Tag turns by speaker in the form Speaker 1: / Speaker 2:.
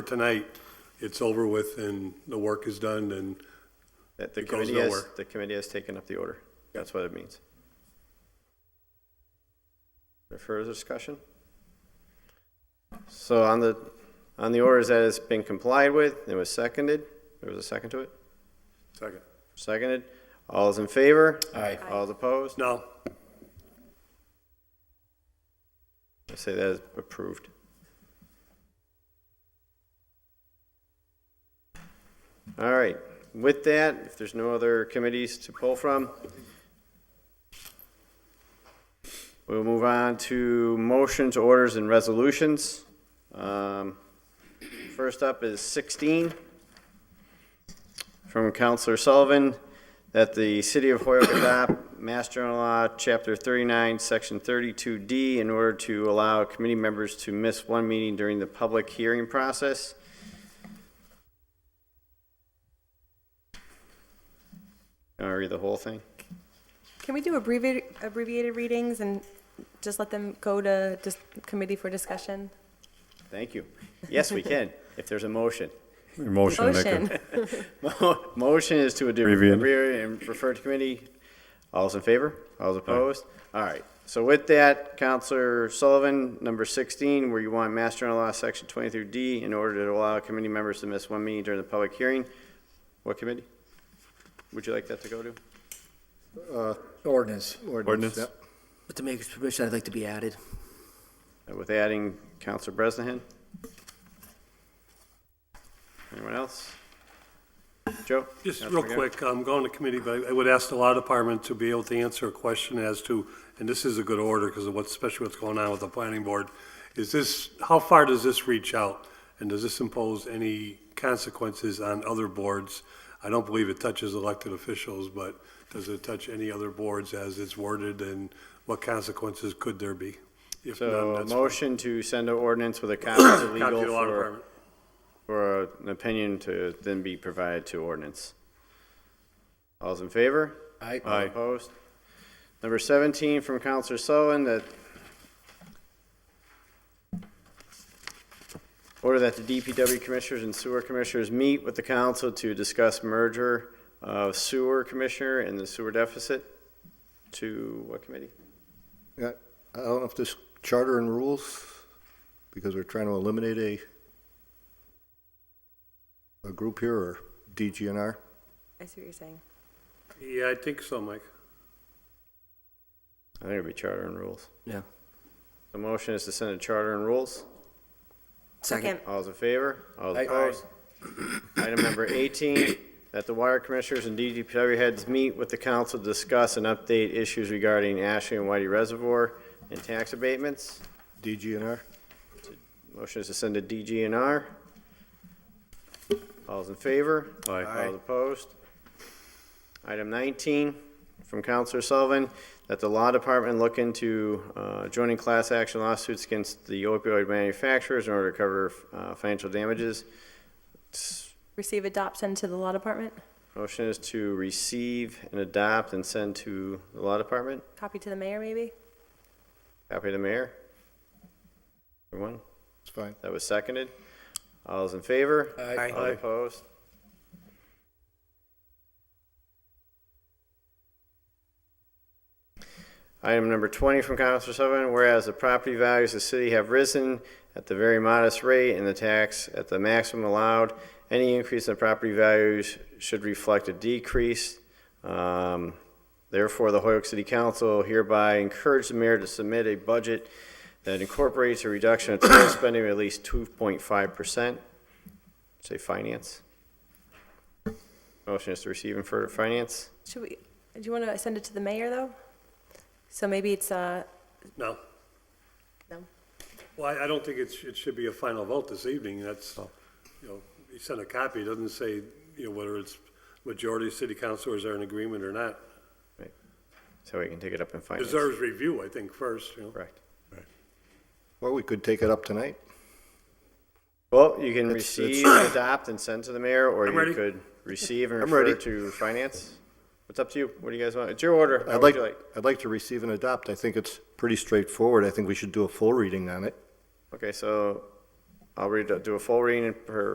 Speaker 1: tonight, it's over with and the work is done and
Speaker 2: That the
Speaker 1: It goes
Speaker 2: committee has,
Speaker 1: nowhere.
Speaker 2: the committee has taken up the order. That's what it means. Any Further discussion? So on the, on the orders that has been complied with, it was seconded, there was a second to it,
Speaker 1: second.
Speaker 2: seconded. All is in favor?
Speaker 3: Aye.
Speaker 2: All is opposed?
Speaker 1: No,
Speaker 2: I say that is approved. All right, with that, if there's no other committees to pull from, we'll move on to motions, orders, and resolutions. Um, First up is 16 from Counselor Sullivan, that the City of Hoyoke adopt Master General Law, Chapter 39, Section 32D, in order to allow committee members to miss one meeting during the public hearing process. Can I read the whole thing?
Speaker 4: Can we do abbreviated, abbreviated readings and just let them go to dis- committee for discussion?
Speaker 2: Thank you. Yes, we can, if there's a motion.
Speaker 3: Motion. that could-
Speaker 4: Motion.
Speaker 2: Mo- Motion is to
Speaker 3: Abbreviate.
Speaker 2: abbreviate and refer to committee. All's in favor? All's opposed? All right. So with that, Counselor Sullivan, number 16, where you want Master General Law, Section 23D, in order to allow committee members to miss one meeting during the public hearing. What committee would you like that to go to?
Speaker 5: Ordinance.
Speaker 3: Ordinance.
Speaker 5: yep.
Speaker 6: With the maker's permission, I'd like to be added.
Speaker 2: Uh, With adding Counselor Bresnahan? Anyone else? Joe?
Speaker 1: just
Speaker 2: Councilor
Speaker 1: real
Speaker 2: McGarry?
Speaker 1: quick, I'm going to committee, but I would ask the law department to be able to answer a question as to, and this is a good order because of what's, especially what's going on with the planning board, is this, how far does this reach out? And does this impose any consequences on other boards? I don't believe it touches elected officials, but does it touch any other boards as it's worded and what consequences could there be? If none,
Speaker 2: So a
Speaker 1: that's
Speaker 2: motion to send an ordinance with a copy to
Speaker 1: Copy
Speaker 2: legal
Speaker 1: to the law
Speaker 2: for
Speaker 1: department.
Speaker 2: for an opinion to then be provided to ordinance. All's in favor?
Speaker 5: Aye.
Speaker 2: All opposed? Number 17 from Counselor Sullivan, that order that the DPW Commissioners and Sewer Commissioners meet with the council to discuss merger of sewer commissioner and the sewer deficit to what committee?
Speaker 5: Yeah, I don't know if this charter and rules, because we're trying to eliminate a, a group here or DGNR.
Speaker 4: I see what you're saying.
Speaker 1: Yeah, I think so, Mike.
Speaker 2: I think it'd be charter and rules.
Speaker 6: Yeah.
Speaker 2: The motion is to send a charter and rules.
Speaker 6: Second.
Speaker 2: All's in favor? All's
Speaker 5: Aye.
Speaker 2: opposed? Item number 18, that the wire commissioners and DGPW heads meet with the council to discuss and update issues regarding Ashley and Whitey Reservoir and tax abatements.
Speaker 5: DGNR?
Speaker 2: Motion is to send to DGNR. All's in favor?
Speaker 3: Aye.
Speaker 2: All opposed? Item 19, from Counselor Sullivan, that the law department look into uh, joining class action lawsuits against the opioid manufacturers in order to cover uh, financial damages.
Speaker 4: Receive adoption to the law department,
Speaker 2: Motion is to receive and adopt and send to the law department.
Speaker 4: copy to the mayor maybe?
Speaker 2: Copy to the mayor. Everyone,
Speaker 5: It's fine.
Speaker 2: that was seconded. All All's in favor?
Speaker 6: Aye.
Speaker 2: All opposed? Item number 20 from Counselor Sullivan, whereas the property values of the city have risen at the very modest rate and the tax at the maximum allowed, any increase in property values should reflect a decrease. Um, Therefore, the Hoyoke City Council hereby encourage the mayor to submit a budget that incorporates a reduction of total spending of at least 2.5% say finance. Motion is to receive and further finance.
Speaker 4: Should we, do you want to send it to the mayor though? So maybe it's, uh,
Speaker 1: No.
Speaker 4: No.
Speaker 1: Well, I- I don't think it should, it should be a final vote this evening, that's, you know, you sent a copy, it doesn't say, you know, whether it's majority of city councilors are in agreement or not.
Speaker 2: So we can take it up in finance.
Speaker 1: Deserves review, I think, first, you know.
Speaker 2: Correct.
Speaker 5: Or we could take it up tonight.
Speaker 2: Well, you can
Speaker 5: It's-
Speaker 2: receive, adopt, and send to the mayor, or
Speaker 1: I'm
Speaker 2: you
Speaker 1: ready.
Speaker 2: could receive and
Speaker 5: I'm
Speaker 2: refer
Speaker 5: ready.
Speaker 2: to finance. It's up to you. What do you guys want? It's your order. How
Speaker 5: I'd
Speaker 2: would
Speaker 5: like,
Speaker 2: you like?
Speaker 5: I'd like to receive and adopt. I think it's pretty straightforward. I think we should do a full reading on it.
Speaker 2: Okay, so I'll read, do a full reading per